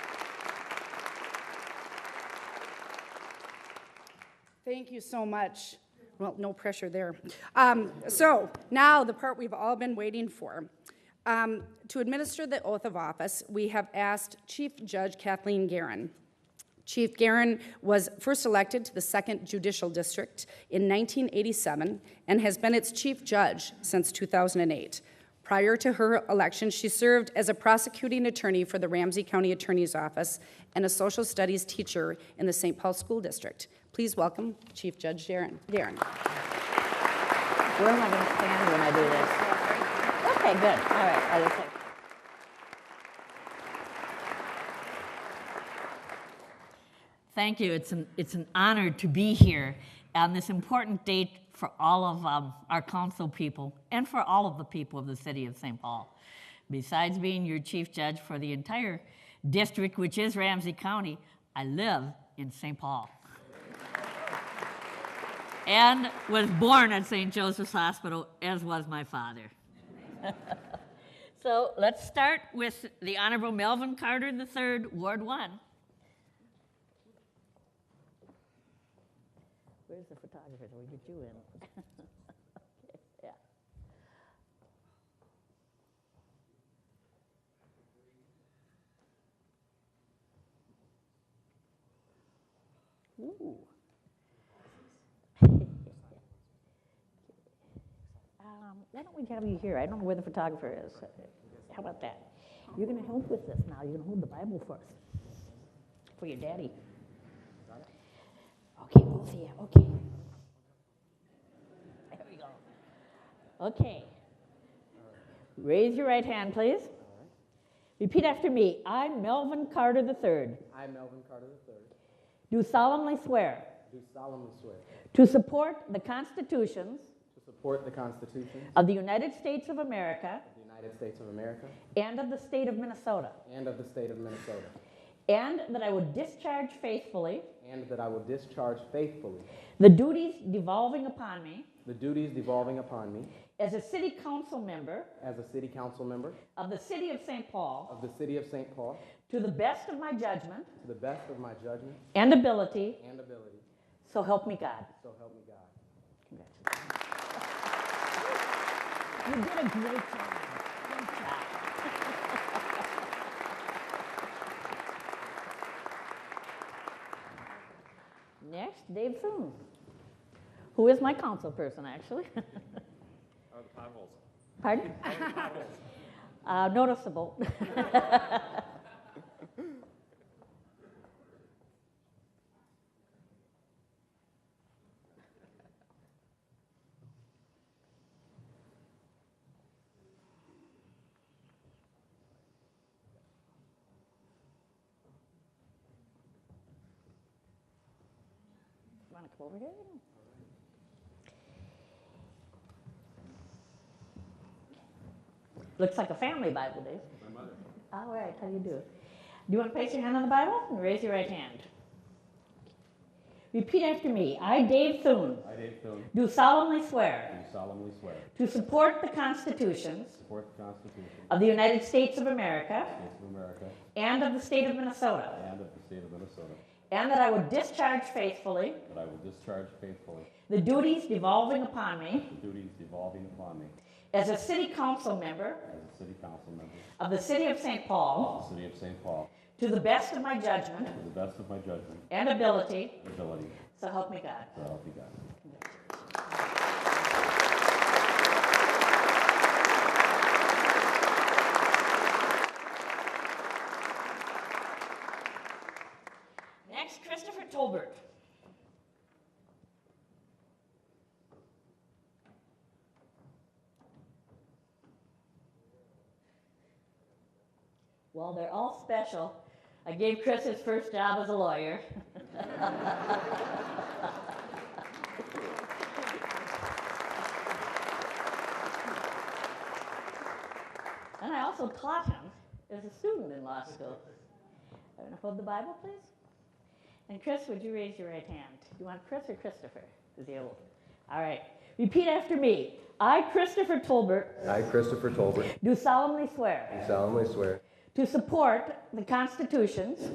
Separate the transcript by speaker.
Speaker 1: Thank you so much. Well, no pressure there. Um, So now, the part we've all been waiting for. Um, To administer the oath of office, we have asked Chief Judge Kathleen Guerin. Chief Guerin was first elected to the Second Judicial District in 1987 and has been its chief judge since 2008. Prior to her election, she served as a prosecuting attorney for the Ramsey County Attorney's Office and a social studies teacher in the St. Paul School District. Please welcome Chief Judge Darren. Darren.
Speaker 2: Where am I going to stand when I do this? Okay, good, all right, I just like. Thank you, it's an, it's an honor to be here on this important date for all of um, our council people and for all of the people of the city of St. Paul. Besides being your chief judge for the entire district, which is Ramsey County, I live in St. Paul and was born at St. Joseph's Hospital, as was my father. so let's start with the Honorable Melvin Carter III, Ward 1. Where's the photographer? that We get you in. yeah. Ooh. Um, Why don't we have you here? I don't know where the photographer is. How about that? You're going to help with this now. You're going to hold the Bible for us, for your daddy. Okay, both of you, okay. There we go. Okay. Raise your right hand, please. Repeat after me. I, Melvin Carter III,
Speaker 3: I, Melvin Carter III,
Speaker 2: do solemnly swear
Speaker 3: do solemnly swear
Speaker 2: to support the constitutions
Speaker 3: to support the Constitution
Speaker 2: of the United States of America
Speaker 3: of the United States of America
Speaker 2: and of the state of Minnesota.
Speaker 3: and of the state of Minnesota,
Speaker 2: And that I will discharge faithfully
Speaker 3: and that I will discharge faithfully
Speaker 2: the duties devolving upon me
Speaker 3: the duties devolving upon me
Speaker 2: as a city council member
Speaker 3: as a city council member
Speaker 2: of the city of St. Paul
Speaker 3: of the city of St. Paul
Speaker 2: to the best of my judgment
Speaker 3: to the best of my judgment
Speaker 2: and ability,
Speaker 3: and ability,
Speaker 2: so help me God.
Speaker 3: so help me God.
Speaker 2: Congratulations. You did a great job. Great job. Next, Dave Thune, who is my council person, actually. Pardon? Uh, noticeable. Want to come over here? Looks like a family Bible, Dave. My mother. All right, how do you do? Do you want to place your hand on the Bible and raise your right hand? Repeat after me. I, Dave Thune,
Speaker 3: I, Dave Thune,
Speaker 2: do solemnly swear
Speaker 3: do solemnly swear
Speaker 2: to support the constitutions
Speaker 3: to support the Constitution
Speaker 2: of the United States of America
Speaker 3: of the States of America
Speaker 2: and of the state of Minnesota,
Speaker 3: and of the state of Minnesota,
Speaker 2: and that I will discharge faithfully
Speaker 3: that I will discharge faithfully
Speaker 2: the duties devolving upon me
Speaker 3: the duties devolving upon me
Speaker 2: as a city council member
Speaker 3: as a city council member
Speaker 2: of the city of St. Paul
Speaker 3: of the city of St. Paul
Speaker 2: to the best of my judgment
Speaker 3: to the best of my judgment
Speaker 2: and ability,
Speaker 3: and ability,
Speaker 2: so help me God.
Speaker 3: so help me God.
Speaker 2: Next, Christopher Tolbert. Well, they're all special. I gave Chris his first job as a lawyer. and I also taught him as a student in law school. I'm going to hold the Bible, please. And Chris, would you raise your right hand? You want Chris or Christopher? Is he old? All right. Repeat after me. I, Christopher Tolbert,
Speaker 4: I, Christopher Tolbert,
Speaker 2: do solemnly swear
Speaker 4: solemnly swear
Speaker 2: to support the constitutions